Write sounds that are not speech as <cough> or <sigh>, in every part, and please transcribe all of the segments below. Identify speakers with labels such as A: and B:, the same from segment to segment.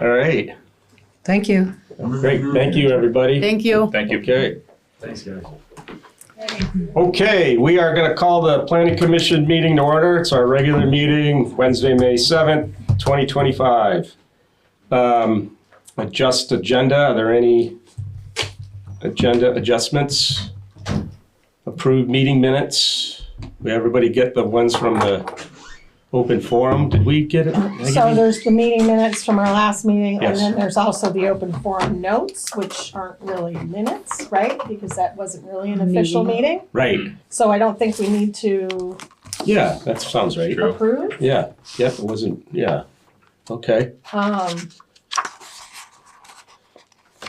A: All right,
B: Thank you.
A: great, thank you, everybody.
B: Thank you.
C: Thank you.
A: Okay,
D: Thanks, guys.
A: okay, we are gonna call the planning commission meeting to order. It's our regular meeting, Wednesday, May seventh, twenty twenty-five. Um, adjust agenda, are there any agenda adjustments? Approved meeting minutes? Did everybody get the ones from the open forum? Did we get it? Did I get
E: So
A: it?
E: there's the meeting minutes from our last meeting,
A: Yes.
E: and then there's also the open forum notes, which aren't really minutes, right? Because that wasn't really an official meeting,
A: Right,
E: so I don't think we need to
A: yeah, that sounds right.
C: True.
E: approve.
A: Yeah, yep, it wasn't, yeah, okay.
E: Um.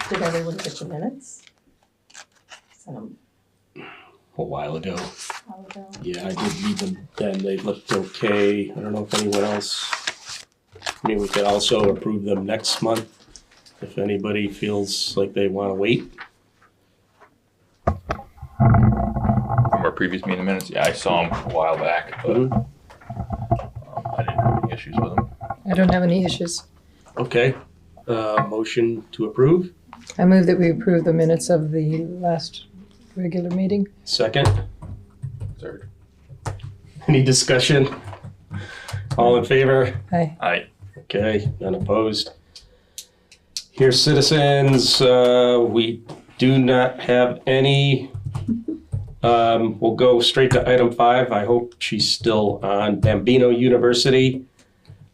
E: Did everyone get your minutes? Sent 'em
A: A while ago.
E: a while ago.
A: Yeah, I did read them then. They looked okay. I don't know if anyone else. I mean, we could also approve them next month if anybody feels like they want to wait.
C: From our previous meeting minutes, yeah, I saw them a while back, but um,
A: Mhm.
C: I didn't have any issues with them.
B: I don't have any issues.
A: Okay, uh, motion to approve.
B: I move that we approve the minutes of the last regular meeting.
A: Second, <laughs>
C: Third.
A: any discussion? All in favor?
B: Aye.
C: Aye.
A: Okay, none opposed. Here, citizens, uh, we do not have any. Um, We'll go straight to item five. I hope she's still on Bambino University.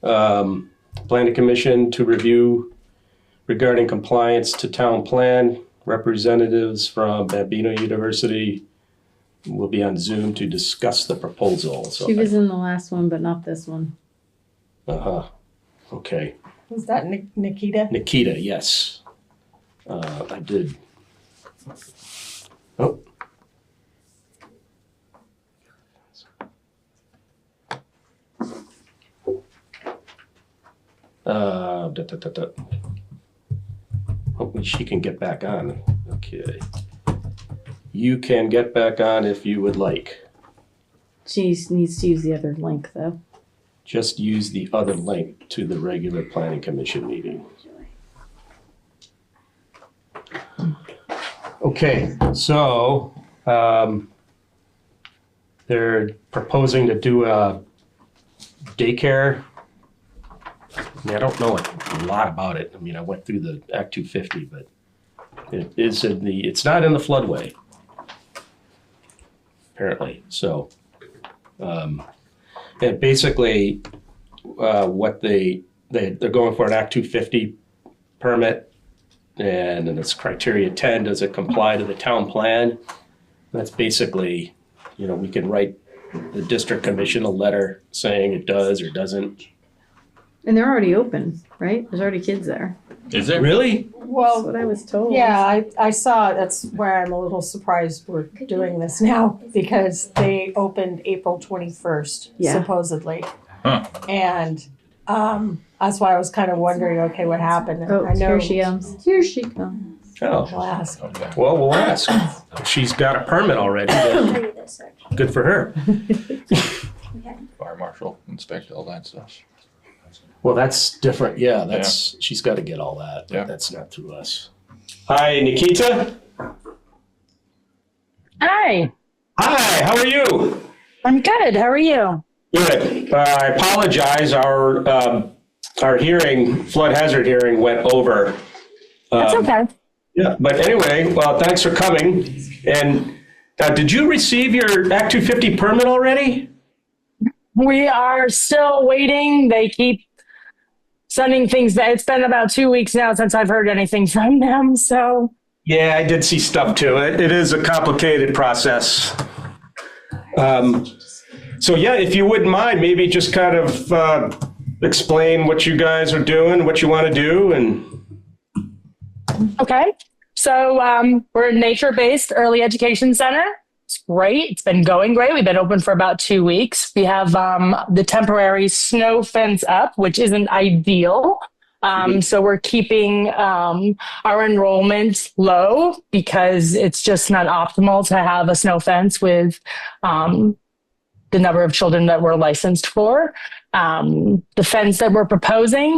A: Um, Planning Commission to review regarding compliance to town plan. Representatives from Bambino University will be on Zoom to discuss the proposal. So,
F: She was in the last one, but not this one.
A: uh-huh. Okay.
E: Was that Ni- Nikita?
A: Nikita, yes. Uh, I did. Oh. Uh, da, da, da, da. Hopefully she can get back on. Okay. You can get back on if you would like.
F: She s- needs to use the other link though.
A: Just use the other link to the regular planning commission meeting. Okay, so, um, they're proposing to do a daycare. I mean, I don't know a lot about it. I mean, I went through the Act two fifty, but it is in the, it's not in the floodway. Apparently, so, um, and basically, uh, what they, they, they're going for an Act two fifty permit. And then it's criteria ten, does it comply to the town plan? That's basically, you know, we can write the district commission a letter saying it does or doesn't.
F: And they're already open, right? There's already kids there.
C: Is there?
A: Really?
E: Well,
F: That's what I was told.
E: Yeah, I, I saw, it. that's where I'm a little surprised we're doing this now, because they opened April twenty-first
F: Yeah.
E: supposedly.
C: Huh.
E: And, um, that's why I was kind of wondering, okay, what happened? And
F: Oh,
E: I know
F: here she comes. Here she comes.
A: Oh,
E: I'll ask.
C: Okay.
A: well, we'll ask. If She's got a permit already, then
G: show you this section.
A: good for her.
C: Fire marshal, inspect all that stuff.
A: Well, that's different. Yeah, that's, she's got to get all that.
C: Yeah.
A: That's not through us. Hi, Nikita.
H: Hi,
A: Hi, how are you?
H: I'm good. How are you?
A: Good. Uh, I apologize. Our um, our hearing, flood hazard hearing, went over.
H: That's
A: Um,
H: okay.
A: Yeah, but anyway, well, thanks for coming. And uh, did you receive your Act 250 permit already?
H: We are still waiting. They keep sending things that it's been about two weeks now since I've heard anything from them. So
A: Yeah, I did see stuff too. It, it is a complicated process. Um, so yeah, if you wouldn't mind, maybe just kind of uh, explain what you guys are doing, what you want to do, and
H: Okay. So um, we're a nature based early education center. It's great. It's been going great. We've been open for about two weeks. We have um, the temporary snow fence up, which isn't ideal. Um, so we're keeping um, our enrollment low because it's just not optimal to have a snow fence with um, the number of children that we're licensed for. Um, the fence that we're proposing